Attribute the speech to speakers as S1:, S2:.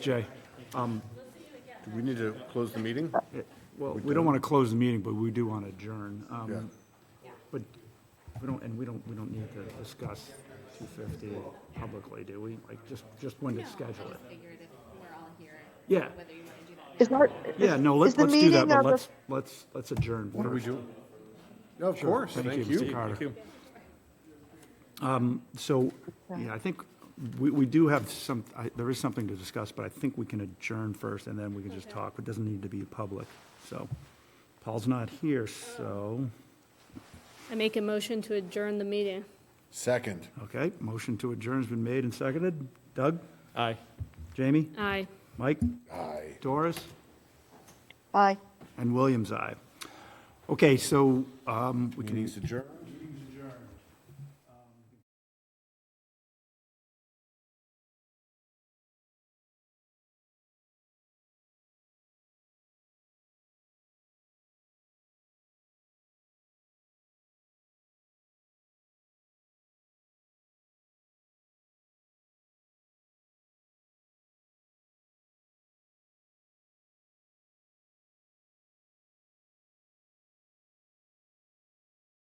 S1: Jay,
S2: Do we need to close the meeting?
S1: well, we don't want to close the meeting, but we do want to adjourn. Um,
S2: Yeah.
S1: But we don't, and we don't, we don't need to discuss 250 publicly, do we? Like, just, just when to schedule
S3: I
S1: it.
S3: just figured if we're all here,
S1: Yeah,
S3: whether you want to do that now.
S4: Is our,
S1: yeah, no, let's,
S4: is the
S1: let's do that,
S4: meeting
S1: but
S4: of the-
S1: let's, let's, let's adjourn
S2: What do we
S1: first.
S2: do? No, Of course,
S1: Thank
S2: thank
S1: you,
S2: you.
S1: Mr. Carter. So, yeah, I think we, we do have some, I, there is something to discuss, but I think we can adjourn first and then we can just talk. It doesn't need to be public, so. Paul's not here, so,
S5: I make a motion to adjourn the meeting.
S2: Second.
S1: okay, motion to adjourn's been made and seconded. Doug?
S6: Aye.
S1: Jamie?
S5: Aye.
S1: Mike?
S2: Aye.
S1: Doris?
S4: aye.
S1: And Williams, aye. Okay, so um, we can,
S2: Meeting's adjourned.